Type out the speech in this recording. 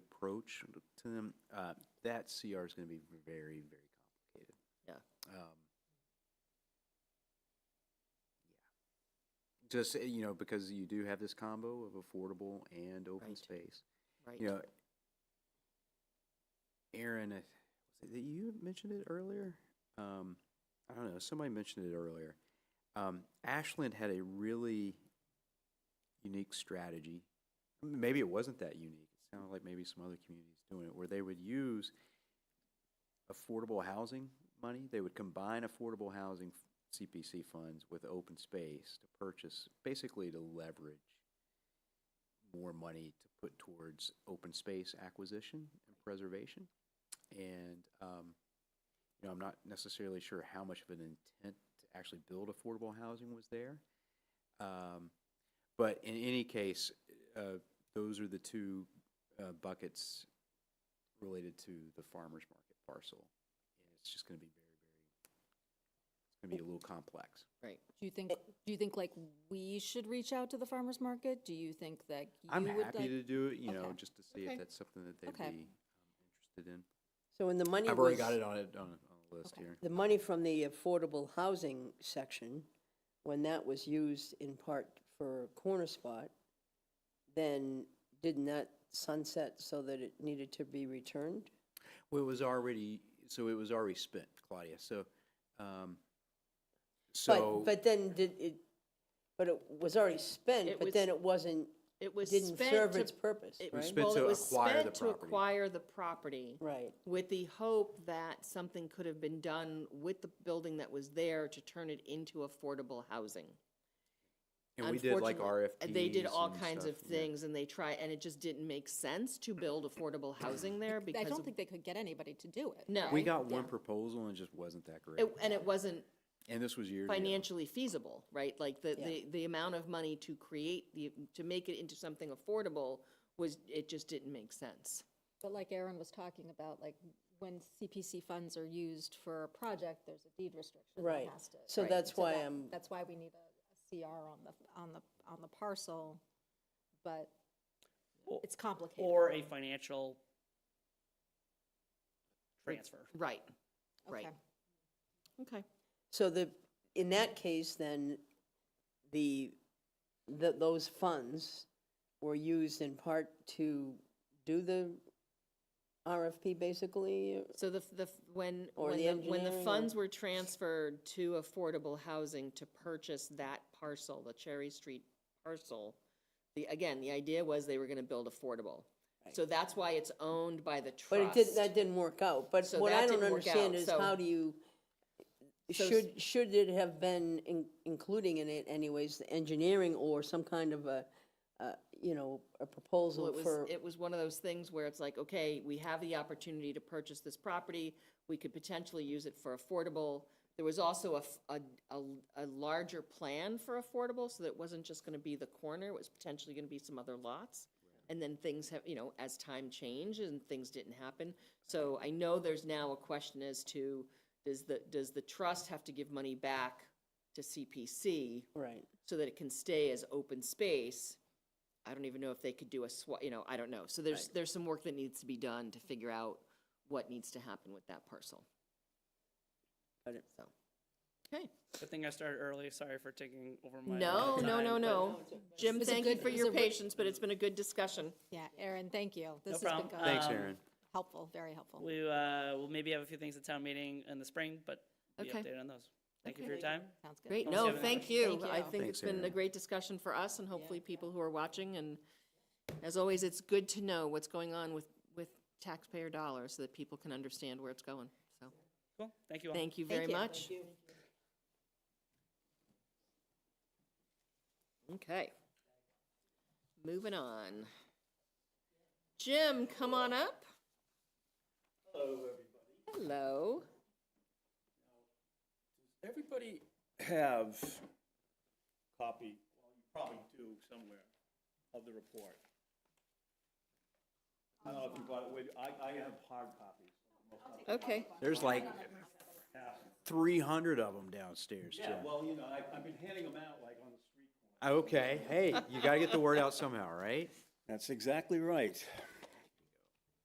approach to them, uh, that CR is going to be very, very complicated. Yeah. Um, yeah. Just, uh, you know, because you do have this combo of affordable and open Right. space. right? You know, Aaron, I- was it that you mentioned it earlier? Um, I don't know, somebody mentioned it earlier. Um, Ashland had a really unique strategy. Maybe it wasn't that unique. It sounded like maybe some other communities doing it, where they would use affordable housing money. They would combine affordable housing CPC funds with open space to purchase, basically to leverage more money to put towards open space acquisition and preservation. And, um, you know, I'm not necessarily sure how much of an intent to actually build affordable housing was there. Um, but in any case, uh, those are the two, uh, buckets related to the farmer's market parcel. And it's just gonna be very, very, it's gonna be a little complex. Right. Do you Eh. think, do you think like we should reach out to the farmer's market? Do you think that I'm you would happy like? to do it, you know, Okay. just to see if Okay. that's something that they'd be Okay. um, interested in. So when the money I've already was- got it on it, on, on the list Okay. here. The money from the affordable housing section, when that was used in part for Corner Spot, then didn't that sunset so that it needed to be returned? Well, it was already, so it was already spent, Claudia, so, um, But- so, But then did it, but it was already spent, It but was- then it wasn't, It was didn't spent serve to- its purpose, it- was right? spent well, to it was acquire the spent to property. acquire the property Right, with the hope that something could have been done with the building that was there to turn it into affordable housing. and we did like Unfortunately, uh, RFPs. They did all and kinds stuff, of yeah. things and they try, and it just didn't make sense to build affordable housing there I because don't of- think they could get anybody to do it. No. We right? got one proposal and it just wasn't that great, it- and it wasn't and this was years ago. financially feasible, right? Like the, Yeah. the, the amount of money to create the, to make it into something affordable was, it just didn't make sense. But like Aaron was talking about, like when CPC funds are used for a project, there's a deed restriction Right. that has to. So Right. that's why that- I'm- That's why we need a- a CR on the, on the, on the parcel, but Or- it's complicated. Or a financial transfer. Right, right. Okay. Okay. so the, in that case, then, the, the, those funds were used in part to do the RFP, basically? So the, f- the, f- when, Or when the the, when the engineering or- funds were transferred to affordable housing to purchase that parcel, the Cherry Street parcel, the, again, the idea was they were gonna build affordable. So that's why it's owned by the But it did, trust. that didn't work out, but So what that I don't didn't work understand out, is so- how do you, So s- should, should it have been in- including in it anyways, the engineering or some kind of a, uh, you know, a Well, proposal it was, for, it was one of those things where it's like, okay, we have the opportunity to purchase this property, we could potentially use it for affordable. There was also a, f- a- a- a larger plan for affordable, so that it wasn't just gonna be the corner, it was potentially gonna be some other lots. And then things have, you know, as time changed and things didn't happen. So I know there's now a question as to, does the, does the trust have to give money back to CPC? right, so that it can stay as open space. I don't even know if they could do a swa, you know, I don't know. So there's, there's some work that needs to be done to figure out what needs to happen with that parcel. Got it. So, okay. Good thing I started early. Sorry for taking over my. No, allotted no, time, no, but no. Jim, was a thank you good- for it was your a re- patience, but it's been a good discussion. Yeah, Aaron, thank you. This has been problem. good. Thanks, Um, Aaron. Helpful, very helpful. We, uh, will maybe have a few things at town meeting in the spring, but be Okay. updated on those. Thank you for your time. Sounds good. Great, Almost no, seven thank hours. you. Thank I you. think Thanks, it's been a Erin. great discussion for us and hopefully people who are watching. And as always, it's good to know what's going on with, with taxpayer dollars so that people can understand where it's going. So, Cool. Thank you all. thank you very much. Okay. Moving on. Jim, come on up. Hello, everybody. Hello. Everybody have copy, well, you probably do somewhere, of the report. I don't know if you bought it, with- I, I have hard copies. Okay, There's like three hundred of them downstairs, Jim. Yeah, well, you know, I, I've been handing them out like on the street corner. Okay, hey, you gotta get the word out somehow, right? That's exactly right.